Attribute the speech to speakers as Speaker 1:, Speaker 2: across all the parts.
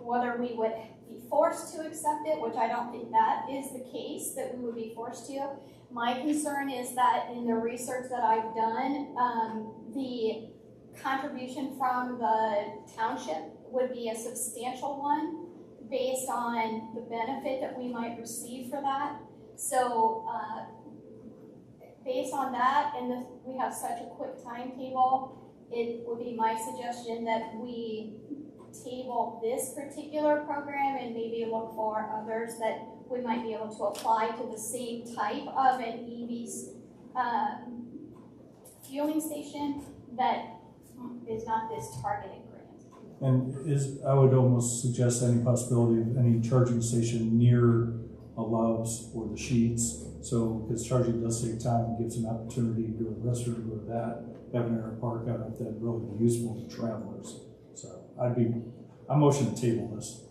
Speaker 1: whether we would be forced to accept it, which I don't think that is the case, that we would be forced to. My concern is that in the research that I've done, um, the contribution from the township would be a substantial one based on the benefit that we might receive for that. So, uh, based on that, and the, we have such a quick timetable, it would be my suggestion that we table this particular program and maybe look for others that we might be able to apply to the same type of an EV's, um, fueling station that is not this targeted grant.
Speaker 2: And is, I would almost suggest any possibility of any charging station near a Love's or the Sheets. So, because charging does save time and gives an opportunity to go to the restroom, go to that, have an air park out if that really be useful to travelers. So I'd be, I motion to table this.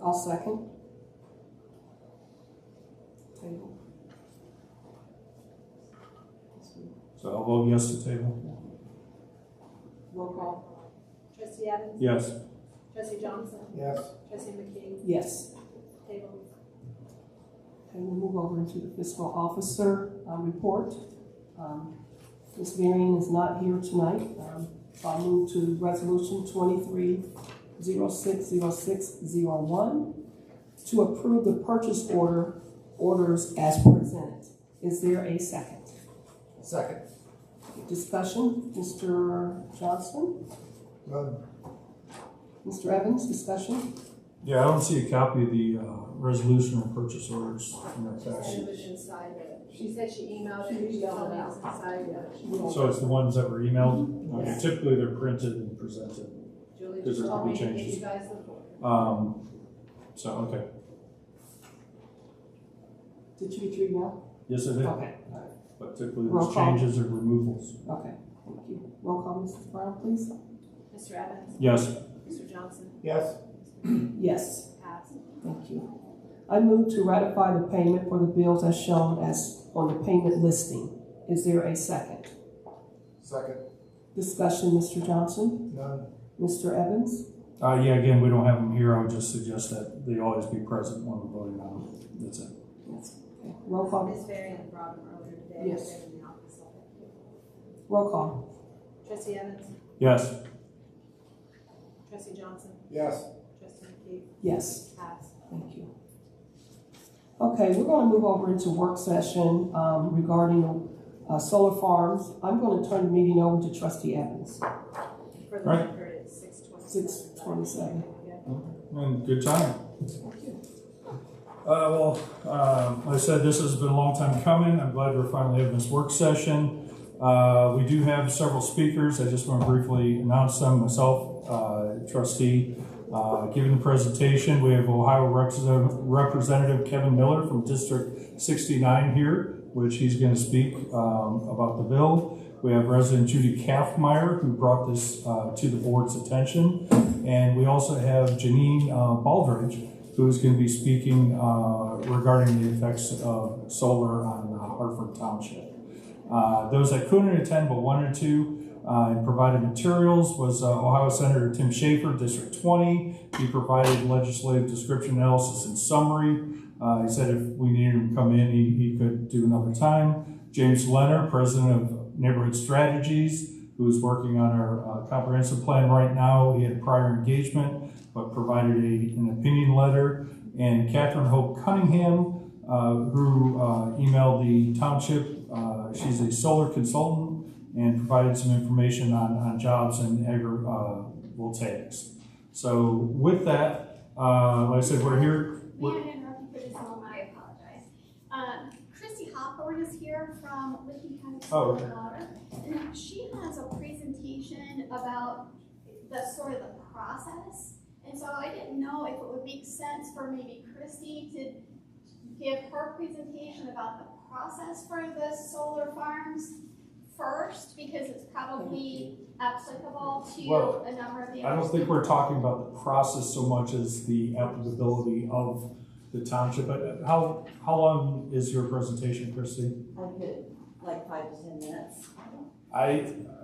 Speaker 3: I'll second. Table.
Speaker 2: So I'll vote yes to table.
Speaker 3: Roll call.
Speaker 4: Trustee Evans?
Speaker 2: Yes.
Speaker 4: Trustee Johnson?
Speaker 5: Yes.
Speaker 4: Trustee McKee?
Speaker 3: Yes.
Speaker 4: Table.
Speaker 3: And we'll move over into the fiscal officer uh, report. Um, Ms. Marion is not here tonight. Um, so I'll move to resolution twenty-three zero six zero six zero one to approve the purchase order, orders as presented. Is there a second?
Speaker 5: Second.
Speaker 3: Discussion, Mr. Johnston?
Speaker 5: None.
Speaker 3: Mr. Evans, discussion?
Speaker 2: Yeah, I don't see a copy of the uh, resolution or purchase orders in that fact sheet.
Speaker 4: was inside of it. She said she emailed it, she told me it was inside of it.
Speaker 2: So it's the ones that were emailed. Okay, Typically, they're printed and presented.
Speaker 4: Julie
Speaker 2: Those
Speaker 4: just
Speaker 2: are
Speaker 4: told me
Speaker 2: the
Speaker 4: to give
Speaker 2: changes.
Speaker 4: you guys the board.
Speaker 2: Um, so, okay.
Speaker 3: Did you get your email?
Speaker 2: Yes, I did.
Speaker 3: Okay,
Speaker 2: But typically
Speaker 3: Roll
Speaker 2: there's
Speaker 3: call.
Speaker 2: changes or removals.
Speaker 3: okay, thank you. Roll call, Mrs. Brown, please.
Speaker 4: Mr. Evans?
Speaker 2: Yes,
Speaker 4: Mr. Johnson?
Speaker 5: Yes.
Speaker 3: Yes,
Speaker 4: Passed.
Speaker 3: thank you. I move to ratify the payment for the bills as shown as on the payment listing. Is there a second?
Speaker 5: Second.
Speaker 3: Discussion, Mr. Johnson?
Speaker 5: None.
Speaker 3: Mr. Evans?
Speaker 2: uh, yeah, again, we don't have them here. I would just suggest that they always be present when we're voting on them. That's it.
Speaker 3: Yes. Okay. Roll call,
Speaker 4: Ms. Varian brought them earlier today.
Speaker 3: Yes.
Speaker 4: They're in the office. all
Speaker 3: roll call.
Speaker 4: day. Trustee Evans?
Speaker 2: Yes,
Speaker 4: Trustee Johnson?
Speaker 5: Yes.
Speaker 4: Trustee McKee?
Speaker 3: Yes,
Speaker 4: Passed.
Speaker 3: thank you. Okay, we're gonna move over into work session um, regarding uh, solar farms. I'm gonna turn the meeting over to trustee Evans.
Speaker 4: For the
Speaker 2: Right.
Speaker 4: record, it's six
Speaker 3: 6:27.
Speaker 4: twenty-seven. Yeah.
Speaker 2: and Mm, good time.
Speaker 3: Thank you.
Speaker 2: Uh, well, um, like I said, this has been a long time coming. I'm glad we're finally having this work session. Uh, we do have several speakers. I just want to briefly announce them myself, uh, trustee. Uh, giving the presentation, we have Ohio Representative- Representative Kevin Miller from District 69 here, which he's going to speak um, about the bill. We have resident Judy Kaffmeyer, who brought this uh, to the board's attention. And we also have Janine uh, Baldridge, who's going to be speaking uh, regarding the effects of solar on uh, Hartford Township. Uh, Those that couldn't attend but wanted to uh, and provided materials was uh, Ohio Senator Tim Schaefer, District 20. He provided legislative description analysis and summary. Uh, He said if we needed him to come in, he he could do another time. James Leonard, President of Neighborhood Strategies, who's working on our uh, comprehensive plan right now. He had prior engagement but provided a, an opinion letter. And Catherine Hope Cunningham, uh, who uh, emailed the township, uh, she's a solar consultant and provided some information on, on jobs and agrivoltaics. So with that, uh, like I said, we're here.
Speaker 1: May I
Speaker 2: we're-
Speaker 1: interrupt you for just a moment? I apologize. Um, Christy Hopper is here from Licking County
Speaker 2: Oh,
Speaker 1: School of
Speaker 2: okay.
Speaker 1: Water. And she has a presentation about the sort of the process. And so I didn't know if it would make sense for maybe Christy to give her presentation about the process for the solar farms first, because it's probably applicable
Speaker 2: Well,
Speaker 1: to a number of the.
Speaker 2: I
Speaker 1: other
Speaker 2: don't think we're talking about the process so much as the applicability of the township. But how, how long is your presentation, Christy?
Speaker 6: I could, like five to ten minutes.
Speaker 2: I,